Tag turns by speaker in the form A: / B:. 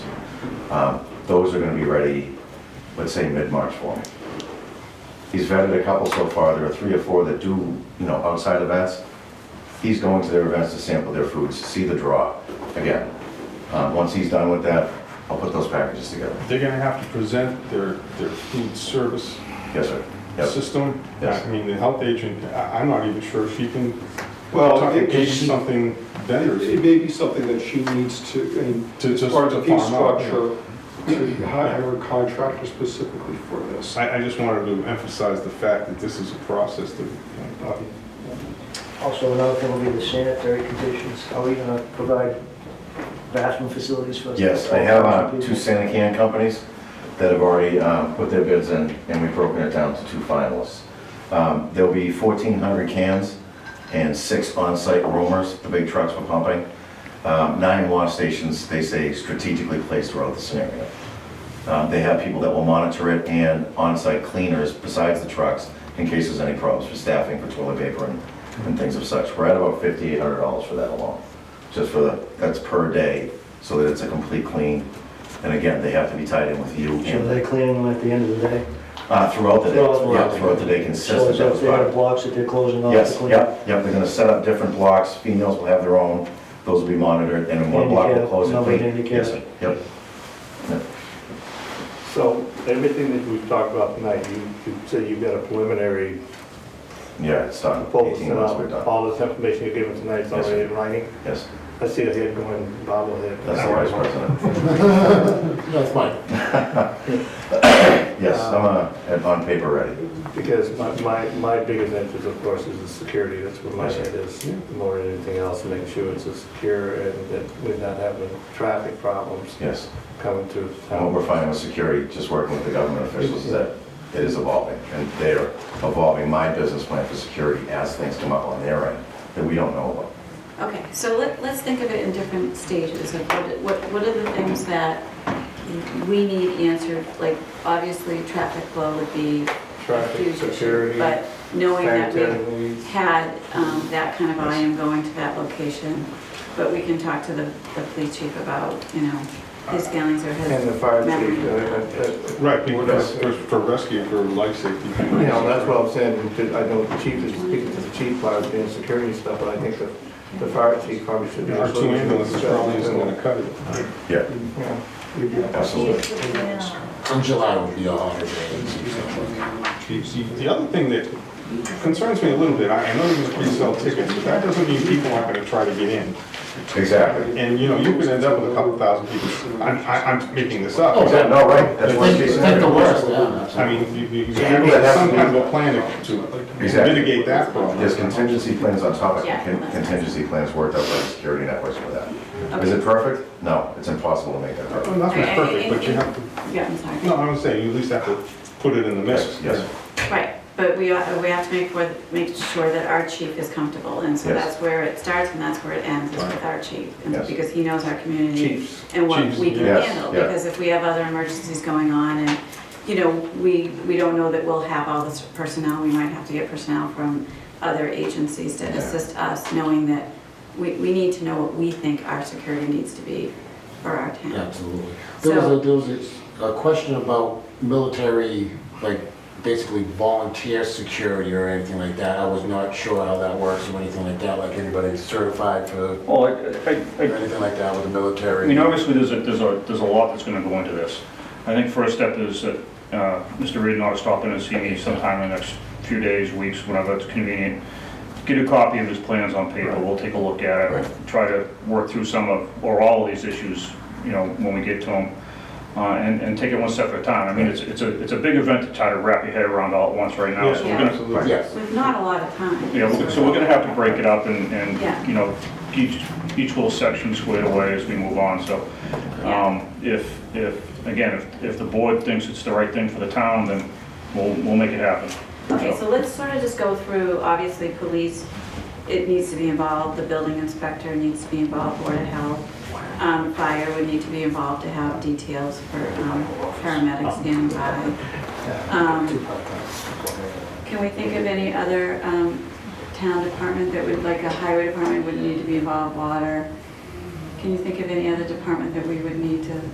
A: Um, Those are gonna be ready, let's say, mid-March for me. He's vetted a couple so far, there are three or four that do, you know, outside events. He's going to their events to sample their foods, to see the draw, again. Um, Once he's done with that, I'll put those packages together.
B: They're gonna have to present their, their food service
A: Yes, sir. Yes.
B: system.
A: Yes.
B: I mean, the health agent, I, I'm not even sure if she can,
C: Well,
B: talk-
C: it-
B: gauge
C: she-
B: something
C: It
B: vendors
C: may be something that she needs to, I mean,
B: to just.
C: part of the fee
B: farm out.
C: structure, to hire a contractor specifically for this.
B: I, I just wanted to emphasize the fact that this is a process that, uh, you know,
D: Also, another thing will be the sanitary conditions. Are we gonna provide bathroom facilities for? us?
A: Yes, I have uh, two Sanican companies that have already um, put their bids in, and we've broken it down to two finalists. Um, There'll be 1,400 cans and six on-site roamers, the big trucks were pumping. Um, Nine wash stations, they say strategically placed throughout the scenario. Um, They have people that will monitor it and on-site cleaners besides the trucks in case there's any problems for staffing, for toilet paper and and things of such. We're at about $5,800 for that alone, just for the, that's per day, so that it's a complete clean. And again, they have to be tied in with you
D: So they're
A: and
D: cleaning them at the end of the day?
A: uh, throughout the day,
D: Throughout the
A: yeah,
D: day.
A: throughout the day
D: So
A: consistent.
D: is that
A: That's
D: if they have
A: fine.
D: blocks that they're closing off to
A: Yes,
D: clean?
A: yep, yep, they're gonna set up different blocks, females will have their own, those will be monitored, and in one block will
D: Handicap,
A: close and
D: numbered
A: clean.
D: handicap.
A: Yes, sir. Yep.
E: So everything that we've talked about tonight, you you say you've got a preliminary
A: Yeah, it's done,
E: proposal,
A: 18
E: sent
A: months, we're
E: out.
A: done.
E: all this information you're giving tonight is
A: Yes,
E: already in writing.
A: Yes,
E: I see a head going bobblehead.
A: that's the vice president.
E: That's mine.
A: Yes, I'm uh, on paper ready.
E: Because my, my, my biggest interest, of course, is the security, that's where my
A: Yes, sir.
E: head is, more than anything else, making sure it's as secure and that we're not having traffic problems
A: Yes,
E: coming through
A: and what
E: town.
A: we're finding with security, just working with the government officials, is that it is evolving, and they're evolving my business plan for security as things come up on their end that we don't know about.
F: Okay, so let, let's think of it in different stages of what, what, what are the things that we need answered? Like, obviously, traffic flow would be a
E: Traffic,
F: huge
E: security,
F: issue, but knowing that we
E: sanitary needs.
F: had, um, that kind of volume going to that location, but we can talk to the, the police chief about, you know, his feelings or his.
E: Uh, And the fire
F: memory.
E: chief, uh, uh,
B: Right, because
E: Yes.
B: for for rescue, for life safety.
E: uh, you know, that's what I'm saying, because I know the chief is speaking to the chief about the insecurity and stuff, but I think the, the fire chief probably should be.
B: Our two ambulances probably isn't gonna cut it.
A: Yeah,
E: Yeah.
A: absolutely.
G: In July would be a holiday. it's usually-
B: The- The the other thing that concerns me a little bit, I I know there's a pre-sale ticket, but that doesn't mean people aren't gonna try to get in.
A: Exactly.
B: And, you know, you could end up with a couple thousand people. I'm, I- I'm making this up.
G: Oh,
A: Yeah, No, right, that's worst case
G: Think think the
A: scenario.
G: worst, yeah.
B: I mean, you, you you have to have some kind of a plan to to
A: Exactly.
B: mitigate that problem.
A: There's contingency plans on top of
F: Yeah.
A: con- contingency plans worked out by the security networks for that. Is it perfect? No, it's impossible to make that
B: Well,
A: perfect.
B: Nothing's perfect, but you have to,
F: Yeah, I'm sorry.
B: no, I'm saying, you at least have to put it in the mix.
A: Yes,
F: Right, but we, are- we have to make, for- make sure that our chief is comfortable, and so
A: Yes.
F: that's where it starts and that's where it ends, is with our chief. and
A: Yes.
F: Because he knows our community
E: Chiefs.
F: and what
B: Chiefs,
F: we can
A: yes,
F: handle,
A: yeah.
F: because if we have other emergencies going on and, you know, we, we don't know that we'll have all this personnel, we might have to get personnel from other agencies to
A: Yeah.
F: assist us, knowing that we, we need to know what we think our security needs to be for our town.
G: Absolutely. There was
F: So-
G: a, there was a- a question about military, like, basically volunteer security or anything like that. I was not sure how that works or anything like that, like anybody certified for,
H: Well, I, I,
G: or
H: I-
G: anything like that with the
H: I
G: military.
H: mean, obviously, there's a, there's a, there's a lot that's gonna go into this. I think first step is that, uh, Mr. Reed ought to stop in and see me sometime in the next few days, weeks, whenever it's convenient. Get a copy of his plans on paper, we'll take a look at
G: Right.
H: it, try to work through some of, or all of these issues, you know, when we get to them. Uh, and, and take it one step at a time. I mean, it's, it's a, it's a big event to try to wrap your head around all at once right now, so we're gonna,
B: Absolutely.
G: Yes.
F: With not a lot of time.
H: Yeah, we're- so we're gonna have to break it up and,
F: Yeah.
H: and, you know, each, each little section squared away as we move on, so. Um, if, if, again, if, if the board thinks it's the right thing for the town, then we'll, we'll make it happen.
F: Okay, so let's sort of just go through, obviously, police, it needs to be involved, the building inspector needs to be involved, Board of Health, um, fire would need to be involved to have details for um, paramedics standing by. Um, Can we think of any other um, town department that would, like a highway department would need to be involved, water? Can you think of any other department that we would need to